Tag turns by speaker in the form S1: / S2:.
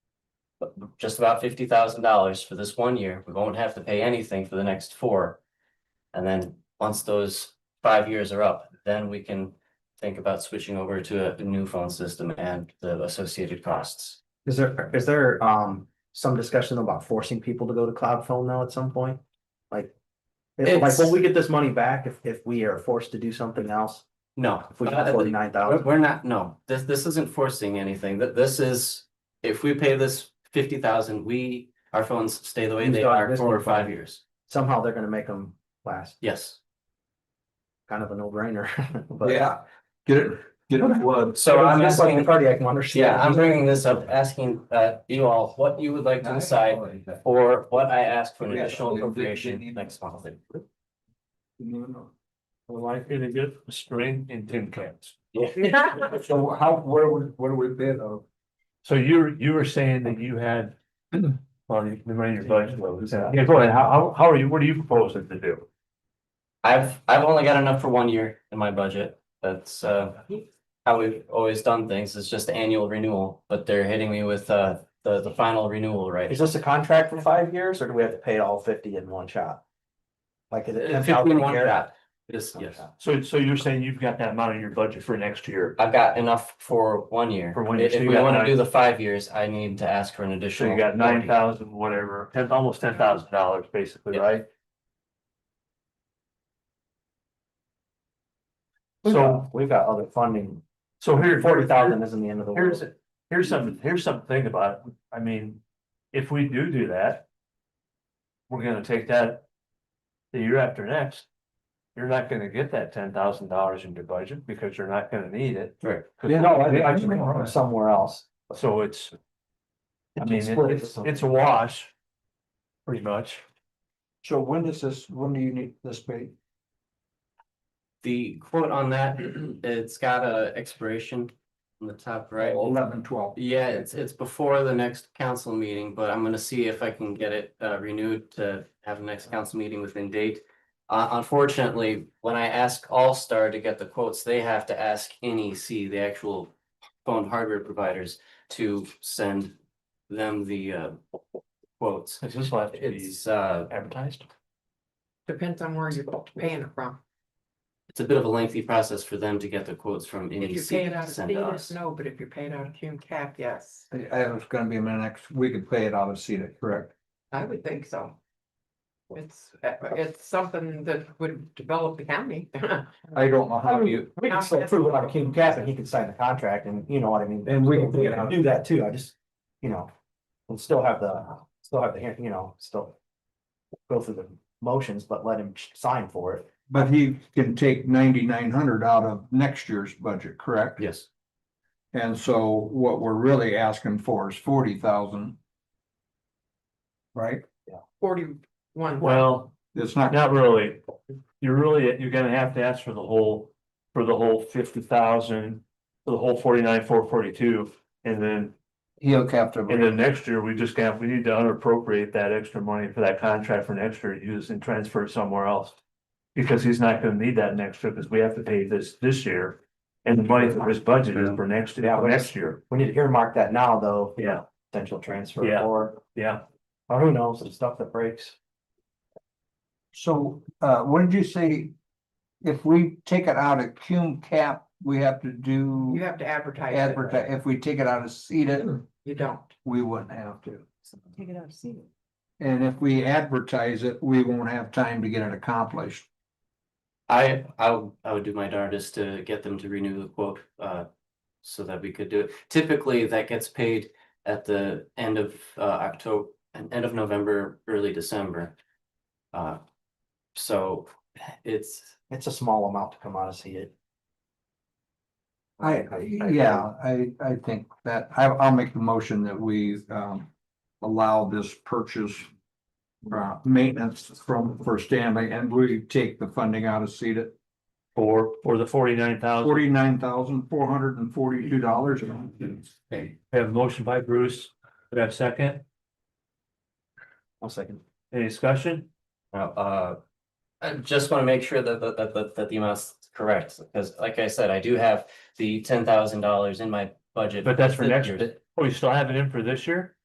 S1: just about fifty thousand dollars for this one year. We won't have to pay anything for the next four. And then, once those five years are up, then we can think about switching over to a new phone system and the associated costs.
S2: Is there, is there, um, some discussion about forcing people to go to cloud phone now at some point? Like. if- Like,
S1: It's-
S2: will we get this money back if, if we are forced to do something else?
S1: No.
S2: If we
S1: not
S2: can
S1: at the-
S2: afford nine
S1: We're,
S2: thousand?
S1: we're not, no, this, this isn't forcing anything, that this is, if we pay this fifty thousand, we, our phones stay the way
S2: Use
S1: they
S2: the
S1: are
S2: existing
S1: for five
S2: phone.
S1: years.
S2: Somehow they're gonna make them last,
S1: Yes,
S2: kind of a no brainer, but.
S3: Yeah. Get it, get it blood.
S1: so I'm
S2: Just like the
S1: asking,
S2: Cardiac monitors.
S1: yeah, I'm bringing this up, asking, uh, you all what you would like to decide or what I ask
S4: Oh,
S1: for an
S3: Yeah,
S1: additional
S3: they- they- they
S1: appropriation
S3: need-
S1: next month.
S4: Like in a good string in tin cans.
S3: So how, where would, where would it be though?
S4: So you were, you were saying that you had, well, you, the money in your budget was, yeah, go ahead, how, how, how are you, what are you proposing to do?
S1: I've, I've only got enough for one year in my budget, that's, uh, how we've always done things, it's just annual renewal, but they're hitting me with, uh, the, the final renewal right
S2: Is this a contract for five years or do we have to pay all fifty in one shot? Like. is it-
S1: Uh, 15 one shot. Yes,
S2: One
S1: yes.
S2: shot.
S4: So, so you're saying you've got that amount in your budget for next year?
S1: I've got enough for one year.
S4: For one year,
S1: If
S4: so
S1: if
S4: you
S1: we
S4: got
S1: wanna
S4: nine.
S1: do the five years, I need to ask for an
S4: So
S1: additional.
S4: you got nine
S1: 40.
S4: thousand, whatever, ten, almost ten thousand dollars basically,
S1: Yeah.
S4: right? So,
S2: We've got other funding,
S4: so here.
S2: forty thousand isn't the end of the
S4: Here's,
S2: world.
S4: here's some, here's something about, it. I mean, if we do do that. We're gonna take that. The year after next. You're not gonna get that ten thousand dollars in your budget because you're not gonna need it.
S1: Right.
S2: Yeah, no, I, I mean, somewhere else.
S4: So it's, I mean, it-
S2: Split it
S4: it's, it's a wash. Pretty much.
S3: So when is this, when do you need this paid?
S1: The quote on that, it's got a expiration on the top right.
S3: Eleven, twelve.
S1: Yeah, it's, it's before the next council meeting, but I'm gonna see if I can get it uh, renewed to have the next council meeting within date. Uh, unfortunately, when I ask All-Star to get the quotes, they have to ask NEC, the actual phone hardware providers, to send them the uh, quotes.
S4: It's just left to be
S1: It's, uh,
S4: advertised.
S5: Depends on where you're paying it from.
S1: it's a bit of a lengthy process for them to get the quotes from
S5: If
S1: NEC
S5: you're paying
S1: to
S5: out of
S1: send to us.
S5: Cetus, no, but if you're paying out of Hume Cap, yes,
S3: I, I was gonna be in the next, we could pay it out of CEDAC, correct?
S5: I would think so. It's, uh, it's something that would develop the county.
S3: I don't know how you,
S2: We can still prove it on King Cap and he can sign the contract and you know what I mean?
S3: And we can-
S2: can Do that too, I just, you know, and still have the, still have the, hear- you know, still. Go through the motions, but let him sign for it.
S3: but he can take ninety-nine hundred out of next year's budget, correct?
S1: Yes,
S3: And so what we're really asking for is forty thousand. Right?
S5: Forty-one.
S4: Well.
S3: It's not,
S4: Not really. You're really, you're gonna have to ask for the whole, for the whole fifty thousand, for the whole forty-nine, four forty-two. And then,
S3: he'll have to.
S4: and then next year, we just got, we need to unappropriate that extra money for that contract for next year, to use and transfer it somewhere else. Because he's not gonna need that next year, because we have to pay this, this year. And the money that was budgeted for next,
S2: Yeah,
S4: for
S2: but-
S4: next year.
S2: We need to earmark that now, though.
S4: Yeah.
S2: Potential transfer
S4: Yeah.
S2: or,
S4: Yeah,
S2: or who knows, some stuff that breaks.
S3: So, uh, what did you say? If we take it out of cum cap, we have to do
S5: You have to advertise. it.
S3: advertise, if we take it out of CETA,
S5: You don't.
S3: we wouldn't have to.
S5: Take it out of Cetus.
S3: And if we advertise it, we won't have time to get it accomplished.
S1: I, I, would- I would do my darndest to get them to renew the quote, uh, so that we could do it. Typically, that gets paid at the end of, uh, October, end of November, early December. Uh, so it's,
S2: It's a small amount to come out of see it.
S3: I, yeah, I, I think that, I, I'll make the motion that we, um, allow this purchase. Uh, maintenance from, for Stanley, and we take the funding out of CETA,
S4: for, for the forty-nine thousand.
S3: forty-nine thousand, four hundred and forty-two dollars.
S4: We have a motion by Bruce, we have a second,
S2: One second.
S4: any discussion?
S1: Now, uh, I just want to make sure that, that, that, that, that the amount's correct, because like I said, I do have the ten thousand dollars in my budget.
S4: But that's for
S1: this
S4: next
S1: year's.
S4: Oh, you still have it in for this year?